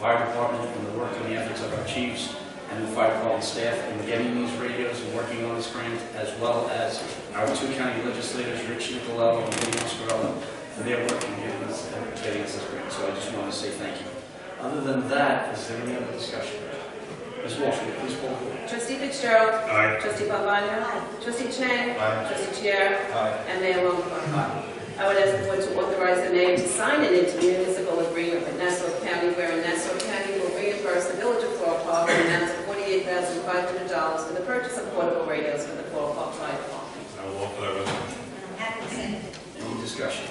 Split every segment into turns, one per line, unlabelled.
fire department and the work and the efforts of our chiefs and the fire department staff in getting these radios and working on this grant, as well as our two county legislators, Rich Nicolau and William Scarlett, for their work in getting us, in getting us this grant. So I just want to say thank you. Other than that, is there any other discussion? Ms. Walsh, will you please call the roll?
Trustee Fitzgerald.
Aye.
Trustee Pabana. Trustee Chang.
Aye.
Trustee Chair.
Aye.
And Mayor Longfellow. I would ask the board to authorize the mayor to sign an intermunicipal agreement with Nassau County wherein Nassau County will reimburse the village of Floral Park an amount of $48,500 for the purchase of portable radios for the Floral Park Fire Department.
I will offer that resolution.
Any discussion?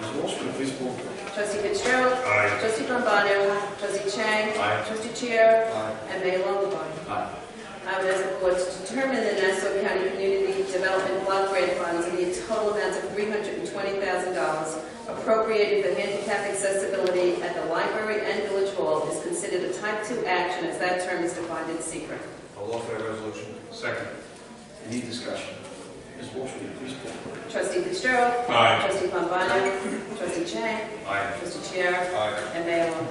Ms. Walsh, will you please call the roll?
Trustee Fitzgerald.
Aye.
Trustee Pabana. Trustee Chang.
Aye.
Trustee Chair. And Mayor Longfellow.
Aye.
I would ask the board to determine the Nassau County Community Development Block Grant Funds in the total amount of $320,000 appropriated for handicap accessibility at the library and village hall is considered a type 2 action as that term is defined in secret.
I'll offer that resolution. Second.
Any discussion? Ms. Walsh, will you please call the roll?
Trustee Fitzgerald.
Aye.
Trustee Pombana. Trustee Chang.
Aye.
Trustee Chair.
Aye.
And Mayor Longfellow.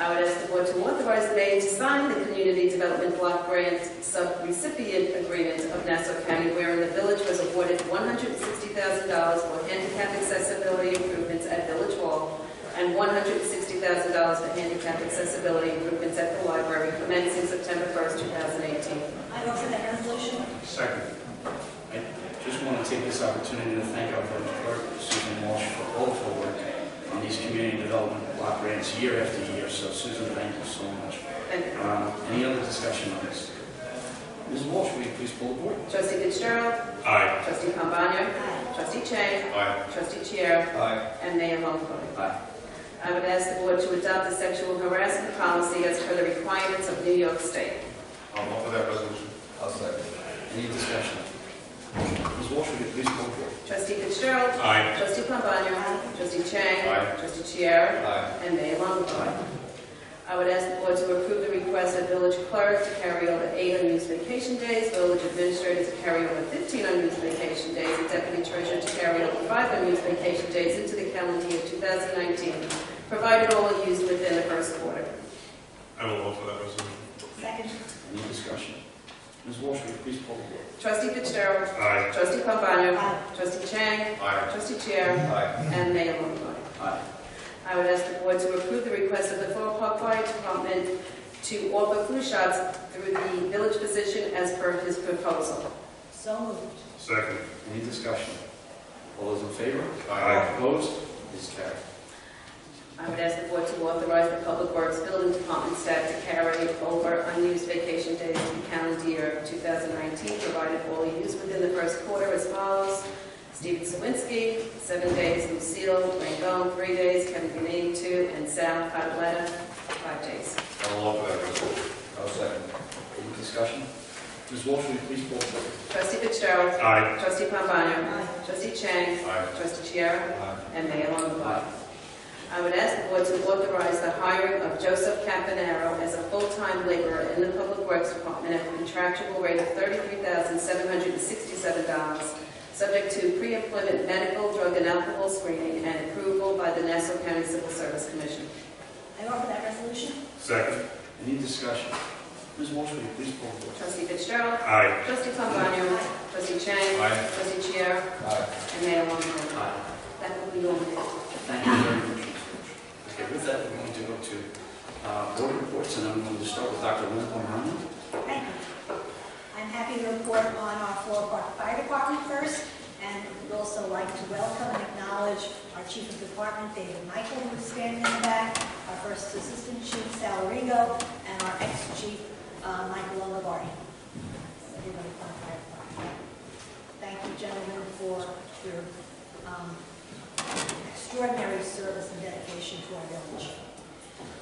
I would ask the board to authorize the mayor to sign the Community Development Block Grant Subrecipient Agreement of Nassau County wherein the village was awarded $160,000 for handicap accessibility improvements at Village Hall and $160,000 for handicap accessibility improvements at the library commencing September 1st, 2018.
I offer that resolution.
Second.
I just want to take this opportunity to thank our village clerk, Susan Walsh, for all of her work on these community development block grants year after year. So Susan, thank you so much.
Thank you.
Um, Any other discussion on this? Ms. Walsh, will you please pull the board?
Trustee Fitzgerald.
Aye.
Trustee Pombana. Trustee Chang.
Aye.
Trustee Chair.
Aye.
And Mayor Longfellow.
Aye.
I would ask the board to adopt the sexual harassment policy as per the requirements of New York State.
I'll offer that resolution. I'll second.
Any discussion? Ms. Walsh, will you please pull the board?
Trustee Fitzgerald.
Aye.
Trustee Pombana. Trustee Chang.
Aye.
Trustee Chiara.
Aye.
And Mayor Longfellow. I would ask the board to approve the request of village clerk to carry over eight unused vacation days, village administrator to carry over 15 unused vacation days, and deputy treasurer to carry over five unused vacation days into the calendar year 2019, provided all are used within the first quarter.
I will offer that resolution.
Second.
Any discussion? Ms. Walsh, will you please pull the board?
Trustee Fitzgerald.
Aye.
Trustee Pombana.
Aye.
Trustee Chang.
Aye.
Trustee Chair.
Aye.
And Mayor Longfellow.
Aye.
I would ask the board to approve the request of the Floral Park Fire Department to offer flu shots through the village physician as per his proposal.
So moved.
Second.
Any discussion? All those in favor?
Aye.
Opposed? Is carried.
I would ask the board to authorize the Public Works Building Department staff to carry over unused vacation days in the calendar year 2019, provided all are used within the first quarter as follows. Steven Sawinski, seven days, Lucille Rangone, three days, Kevin Ganey, two, and Sal Cataletta, five days.
I'll offer that resolution.
I'll second. Any discussion? Ms. Walsh, will you please pull the board?
Trustee Fitzgerald.
Aye.
Trustee Pombana.
Aye.
Trustee Chang.
Aye.
Trustee Chiara.
Aye.
And Mayor Longfellow. I would ask the board to authorize the hiring of Joseph Campanaro as a full-time laborer in the Public Works Department at a contractual rate of $33,767, subject to pre-employment medical, drug, and alcohol screening and approval by the Nassau County Civil Service Commission.
I offer that resolution.
Second.
Any discussion? Ms. Walsh, will you please pull the board?
Trustee Fitzgerald.
Aye.
Trustee Pombana. Trustee Chang.
Aye.
Trustee Chiara.
Aye.
And Mayor Longfellow.
Aye.
That will be all.
Thank you very much. Okay, with that, we're going to go to uh, board reports, and I'm going to start with Dr. Lynn O'Brien.
Thank you. I'm happy to report on our Floral Park Fire Department first, and would also like to welcome and acknowledge our Chief of Department, David Michael, who's standing in the back, our First Assistant Chief, Sal Rigo, and our ex-chief, uh, Michael Olivari. So everybody from the Fire Department. Thank you, gentlemen, for your um, extraordinary service and dedication to our village.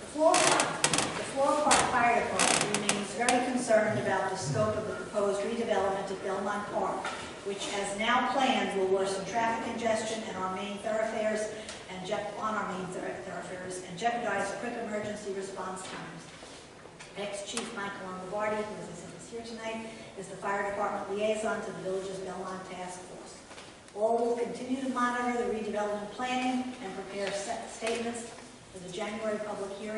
The Floral Park- the Floral Park Fire Department remains very concerned about the scope of the proposed redevelopment of Belmont Park, which as now planned will worsen traffic congestion and our main thoroughfares and je- on our main thor- thoroughfares and jeopardize quick emergency response times. Ex-Chief Michael Longobardi, who is is here tonight, is the fire department liaison to the village's Belmont Task Force. All will continue to monitor the redevelopment planning and prepare set statements for the January public hearing